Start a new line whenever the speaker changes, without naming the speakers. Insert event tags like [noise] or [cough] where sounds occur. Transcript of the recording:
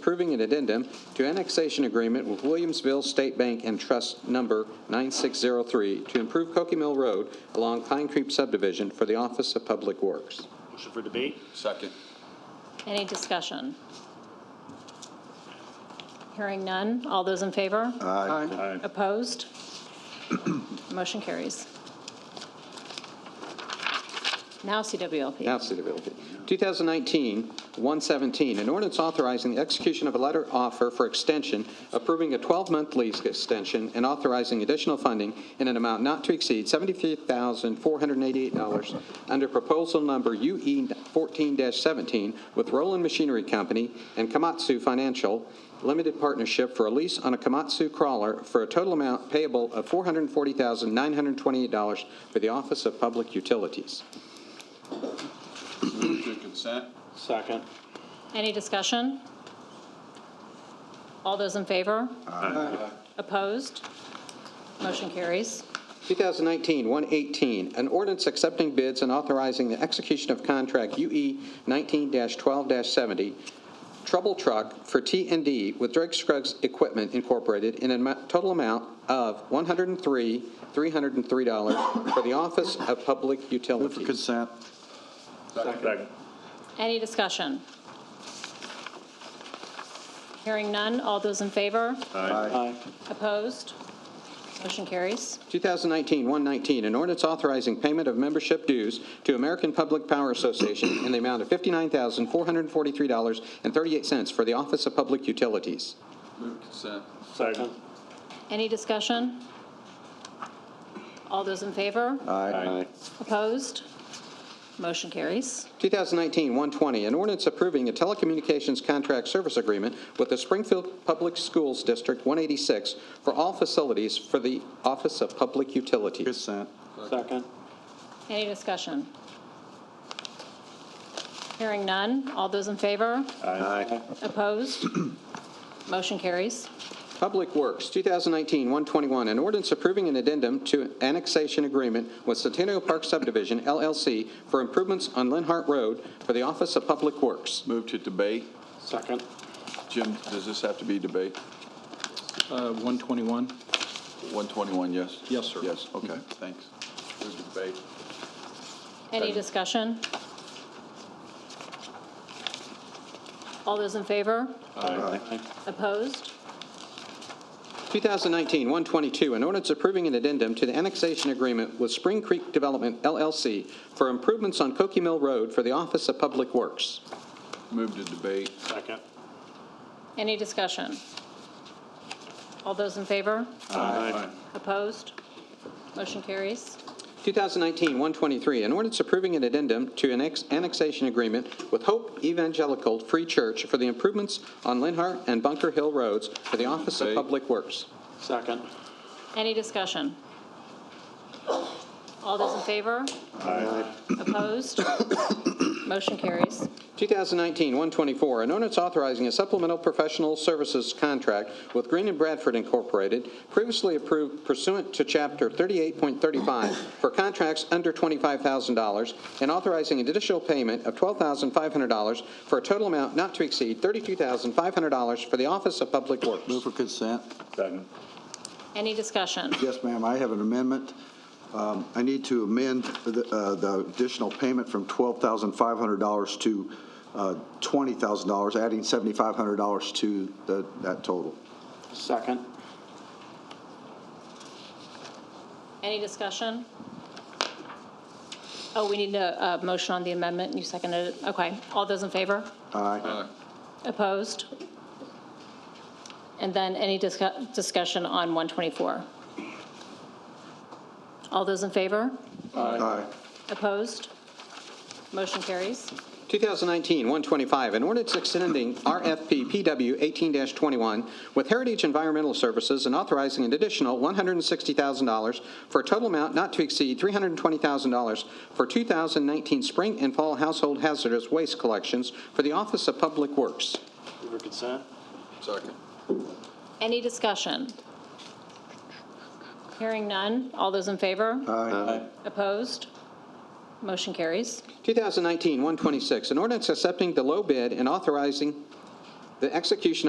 approving an addendum to annexation agreement with Williamsville State Bank and Trust Number 9603 to improve Cokie Mill Road along Pine Creek subdivision for the Office of Public Works.
Motion for debate?
Second.
Any discussion? Hearing none. All those in favor?
Aye.
Opposed? Motion carries. Now CWLP.
Now, City of Middlefield. 2019-117, an ordinance authorizing the execution of a letter offer for extension, approving a 12-month lease extension, and authorizing additional funding in an amount not to exceed $73,488 under proposal number E UE14-17 with Roland Machinery Company and Komatsu Financial Limited Partnership for a lease on a Komatsu crawler for a total amount payable of $440,928 for the Office of Public Utilities.
Move to consent.
Second.
Any discussion? All those in favor? Opposed? Motion carries.
2019-118, an ordinance accepting bids and authorizing the execution of contract E UE 19-12-70, Trouble Truck for t and D with Drake Scruggs Equipment Incorporated in a mo- total amount of $103,303 for the Office of Public
Move for
Utilities.
consent.
Second.
Any discussion? Hearing none. All those in favor?
Aye.
Opposed? Motion carries.
2019-119, an ordinance authorizing payment of membership dues to American Public Power Association in the amount of $59,443.38 for the Office of Public Utilities.
Move consent.
Second.
Any discussion? All those in favor?
Aye.
Opposed? Motion carries.
2019-120, an ordinance approving a telecommunications contract service agreement with the Springfield Public Schools District 186 for all facilities for the Office of Public Utilities.
Consent.
Second.
Any discussion? Hearing none. All those in favor?
Aye.
Opposed? [clears throat] Motion carries.
Public Works, 2019-121, an ordinance approving an addendum to annexation agreement with Centennial Park Subdivision LLC for improvements on Linhart Road for the Office of Public Works.
Move to debate.
Second.
Jim, does this have to be debate?
Uh, 121,
121, yes?
Yes, sir.
Yes, okay, thanks. Move to debate.
Any discussion? All those in favor? Opposed?
2019-122, an ordinance approving an addendum to the annexation agreement with Spring Creek Development LLC for improvements on Cokie Mill Road for the Office of Public Works.
Move to debate.
Second.
Any discussion? All those in favor?
Aye.
Opposed? Motion carries.
2019-123, an ordinance approving an addendum to an ex- annexation agreement with Hope Evangelical Free Church for the improvements on Linhart and Bunker Hill Roads for the Office of
Debate.
Public Works.
Second.
Any discussion? All those in favor? Opposed? Motion carries.
2019-124, an ordinance authorizing a supplemental professional services contract with Green and Bradford Incorporated, previously approved pursuant to Chapter 38.35 for contracts under $25,000, and authorizing an additional payment of $12,500 for a total amount not to exceed $32,500 for the Office of Public Works.
Move for consent.
Second.
Any discussion?
Yes, ma'am, I have an amendment. Um, I need to amend the uh, the additional payment from $12,500 to uh, $20,000, adding $7,500 to the- that total.
Second.
Any discussion? Oh, we need a, a motion on the amendment. You seconded it. Okay. All those in favor?
Aye.
Aye.
Opposed? And then any discu- discussion on 124? All those in favor?
Aye.
Opposed? Motion carries.
2019-125, an ordinance extending RFP PW 18-21 with Heritage Environmental Services and authorizing an additional $160,000 for a total amount not to exceed $320,000 for 2019 spring and fall household hazardous waste collections for the Office of Public Works.
Move for consent?
Second.
Any discussion? Hearing none. All those in favor?
Aye.
Opposed? Motion carries.
2019-126, an ordinance accepting the low bid and authorizing The execution of